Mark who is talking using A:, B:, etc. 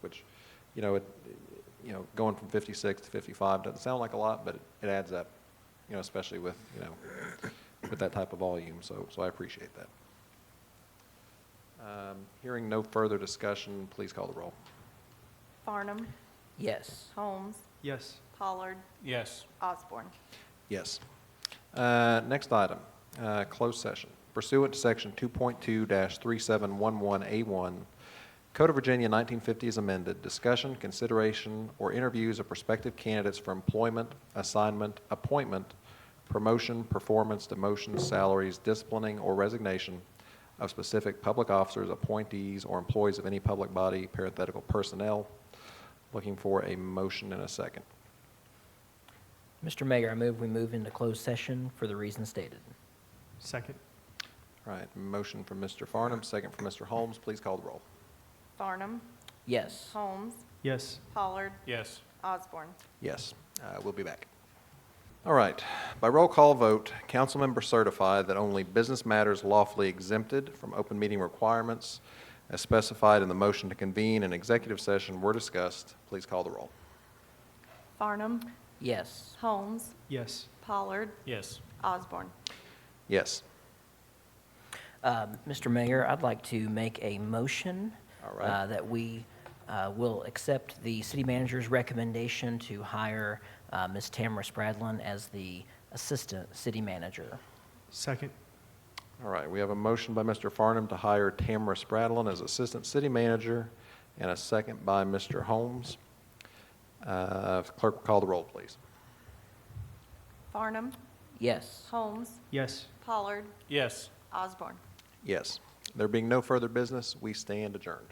A: which, you know, it, you know, going from 56 to 55 doesn't sound like a lot, but it adds up, you know, especially with, you know, with that type of volume, so, so I appreciate that. Um, Hearing no further discussion, please call the roll.
B: Farnum,
C: Yes.
B: Holmes,
D: Yes.
B: Pollard,
D: Yes.
B: Osborne.
A: Yes. Uh, Next item, uh, closed session. Pursuant to Section 2.2-3711A1, Code of Virginia 1950 is amended, discussion, consideration, or interviews of prospective candidates for employment, assignment, appointment, promotion, performance, demotion, salaries, disciplining, or resignation of specific public officers, appointees, or employees of any public body, parenthetical personnel. Looking for a motion in a second.
C: Mr. Mayor, I move we move into closed session for the reasons stated.
D: Second.
A: All right, motion from Mr. Farnum, second from Mr. Holmes. Please call the roll.
B: Farnum,
C: Yes.
B: Holmes,
D: Yes.
B: Pollard,
D: Yes.
B: Osborne.
A: Yes, uh, we'll be back. All right, by roll call vote, council members certify that only business matters lawfully exempted from open meeting requirements as specified in the motion to convene an executive session were discussed. Please call the roll.
B: Farnum,
C: Yes.
B: Holmes,
D: Yes.
B: Pollard,
D: Yes.
B: Osborne.
A: Yes.
C: Um, Mr. Mayor, I'd like to make a motion
A: All right.
C: uh, that we uh, will accept the city manager's recommendation to hire uh, Ms. Tamara Spradlin as the assistant city manager.
D: Second.
A: All right, we have a motion by Mr. Farnum to hire Tamara Spradlin as Assistant City Manager and a second by Mr. Holmes. Uh, Clerk will call the roll, please.
B: Farnum,
C: Yes.
B: Holmes,
D: Yes.
B: Pollard,
D: Yes.
B: Osborne.
A: Yes. There being no further business, we stand adjourned.